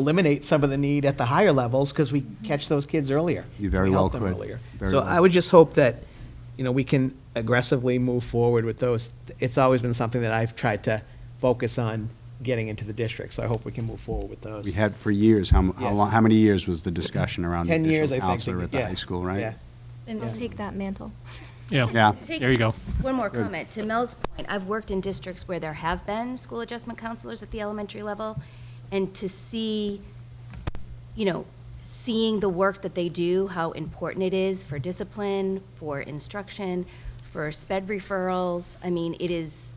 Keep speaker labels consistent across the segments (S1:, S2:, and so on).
S1: eliminate some of the need at the higher levels because we catch those kids earlier.
S2: You very
S1: We help
S2: well
S1: them
S2: could.
S1: earlier.
S2: Very
S1: So
S2: well
S1: I would just hope that, you know, we can aggressively move forward with those. It's always been something that I've tried to focus on getting into the district, so I hope we can move forward with those.
S2: We had for years, how, m- how
S1: Yes.
S2: long, how many years was the discussion around the
S1: 10 years, I
S2: additional
S1: think.
S2: counselor at the
S1: yeah,
S2: high school, right?
S1: yeah.
S3: And we'll take that mantle.
S4: Yeah.
S2: Yeah.
S5: Take-
S4: There you go.
S5: One more
S2: Good.
S5: comment. To Mel's point, I've worked in districts where there have been school adjustment counselors at the elementary level, and to see, you know, seeing the work that they do, how important it is for discipline, for instruction, for sped referrals, I mean, it is,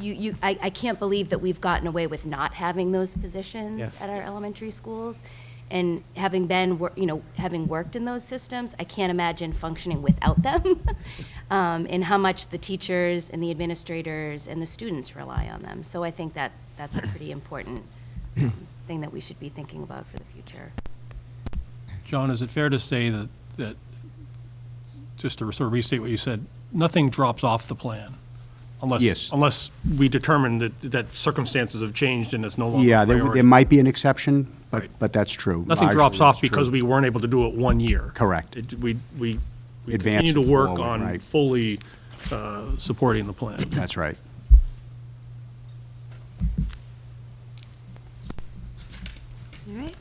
S5: you, you, I, I can't believe that we've gotten away with not having those positions
S1: Yeah.
S5: at our elementary schools. And having been, wor- you know, having worked in those systems, I can't imagine functioning without them. Um, and how much the teachers and the administrators and the students rely on them. So I think that, that's a pretty important um, thing that we should be thinking about for the future.
S4: John, is it fair to say that, that, just to sort of restate what you said, nothing drops off the plan? Unless,
S2: Yes.
S4: Unless we determine that, that circumstances have changed and it's no longer
S2: Yeah,
S4: a
S2: there, there
S4: priority.
S2: might be an exception, but,
S4: Right.
S2: but that's true.
S4: Nothing
S2: Largely
S4: drops
S2: that's
S4: off
S2: true.
S4: because we weren't able to do it one year.
S2: Correct.
S4: It- We, we, we
S2: Advance
S4: continue to work
S2: forward,
S4: on
S2: right.
S4: fully uh, supporting the plan.
S2: That's right.
S3: All right.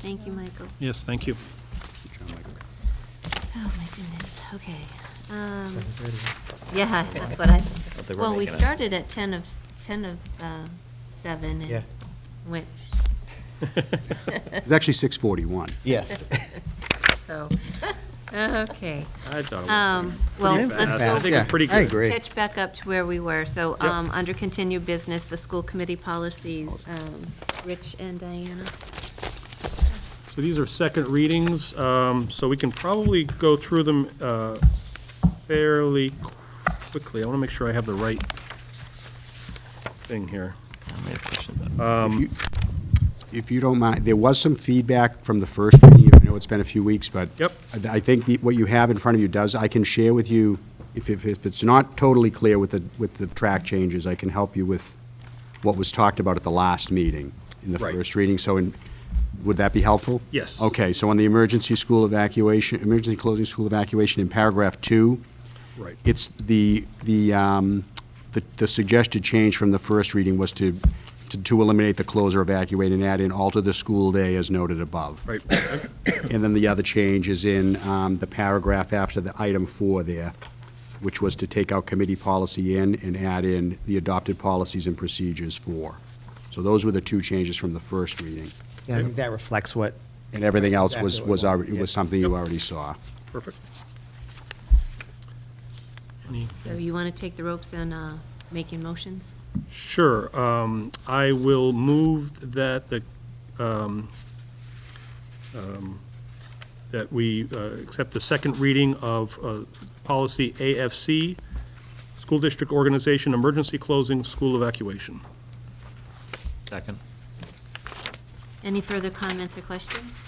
S3: Thank you, Michael.
S4: Yes, thank you.
S3: Oh, my goodness, okay. Um, Yeah, that's what I,
S6: they were
S3: well, we
S6: making a-
S3: started at 10 of, s- 10 of uh, 7
S1: Yeah.
S3: and went,
S2: It's actually 641.
S1: Yes.
S3: so, okay.
S4: I thought it was
S3: Um, Well,
S4: pretty
S3: let's
S4: fast.
S3: go
S4: I think we're pretty
S1: I
S4: good.
S1: agree.
S3: catch back up to where we were. So,
S4: Yep.
S3: um, under continued business, the school committee policies, um, Rich and Diana.
S4: So these are second readings, um, so we can probably go through them uh, fairly quickly. I want to make sure I have the right thing here.
S2: If you don't mind, there was some feedback from the first reading. I know it's been a few weeks, but.
S4: Yep.
S2: I I think the- what you have in front of you does, I can share with you, if, if if it's not totally clear with the, with the track changes, I can help you with what was talked about at the last meeting, in the
S4: Right.
S2: first reading. So, in- would that be helpful?
S4: Yes.
S2: Okay, so on the emergency school evacuation, emergency closing school evacuation in paragraph two,
S4: Right.
S2: it's the, the, um, the- the suggested change from the first reading was to, to- to eliminate the close or evacuate and add in alter the school day as noted above.
S4: Right,
S2: And then the other change is in um, the paragraph after the item four there, which was to take out committee policy in and add in the adopted policies and procedures for. So those were the two changes from the first reading.
S1: Yeah, I think that reflects what, oh,
S2: And everything else was,
S1: Exactly
S2: was,
S1: what we
S2: already- was
S1: want, yeah.
S2: something you already saw.
S4: perfect.
S3: So you want to take the ropes on uh, making motions?
S4: Sure, um, I will move that the, um, um, that we uh, accept the second reading of uh, policy AFC, school district organization, emergency closing, school evacuation.
S6: Second.
S3: Any further comments or questions?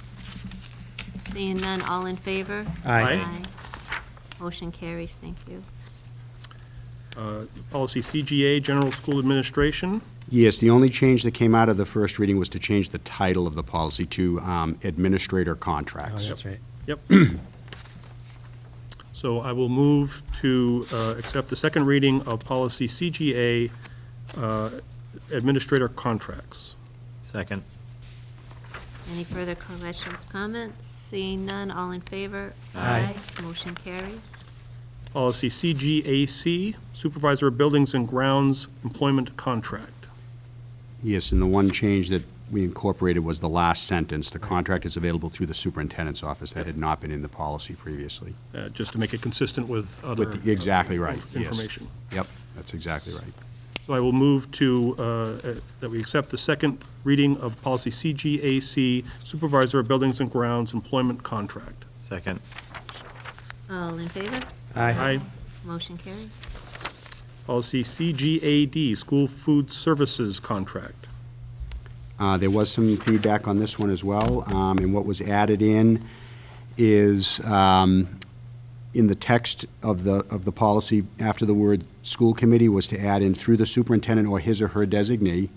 S3: Seeing none, all in favor?
S1: Aye.
S4: Aye.
S3: Motion carries, thank you.
S4: Uh, Policy CGA, General School Administration.
S2: Yes, the only change that came out of the first reading was to change the title of the policy to um, administrator
S1: oh,
S2: contracts.
S1: that's right.
S4: Yep. So I will move to uh, accept the second reading of policy CGA, uh, Administrator Contracts.
S6: Second.
S3: Any further questions, comments? Seeing none, all in favor?
S1: Aye.
S3: Motion carries.
S4: Policy CGAC, Supervisor of Buildings and Grounds Employment Contract.
S2: Yes, and the one change that we incorporated was the last sentence. The contract is available through the superintendent's office. That had not been in the policy previously.
S4: uh, just to make it consistent with other.
S2: With the- exactly right,
S4: inf-
S2: yes.
S4: Information.
S2: Yep, that's exactly right.
S4: So I will move to, uh, uh, that we accept the second reading of policy CGAC, Supervisor of Buildings and Grounds Employment Contract.
S6: Second.
S3: All in favor?
S1: Aye.
S4: Aye.
S3: Motion carries.
S4: Policy CGAD, School Food Services Contract.
S2: Uh, There was some feedback on this one as well, um, and what was added in is, um, in the text of the, of the policy, after the word "school committee" was to add in "through the superintendent or his or her designee,"